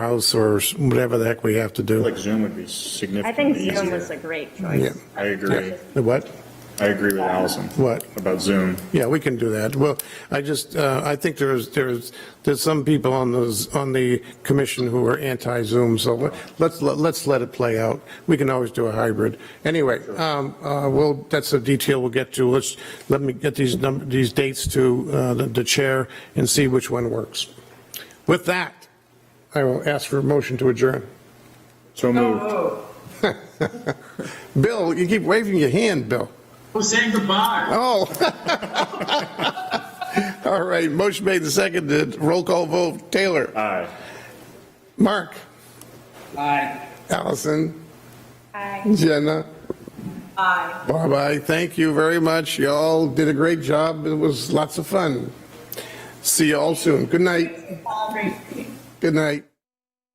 house or s- whatever the heck we have to do. like Zoom would be I think significantly Zoom was easier. a great Yeah. choice. I agree. The What? I agree with Allison What? about Zoom. Yeah, we can do that. Well, I just, uh, I think there's, there's, there's some people on those, on the commission who are anti-Zoom, so let- let's, let- let's let it play out. We can always do a hybrid. Anyway, um, uh, well, that's a detail we'll get to. Let's, let me get these number, these dates to, uh, the, the chair and see which one works. With that, I will ask for a motion to adjourn. So moved. Bill, you keep waving your hand, Bill. Who's saying goodbye? Oh. All right, motion made and seconded. Roll call vote. Taylor. Aye. Mark. Bye. Allison. Aye. Jenna. Aye. Bob, I thank you very much. Y'all did a great job. It was lots of fun. See y'all soon. Good night. It's all great. Good night.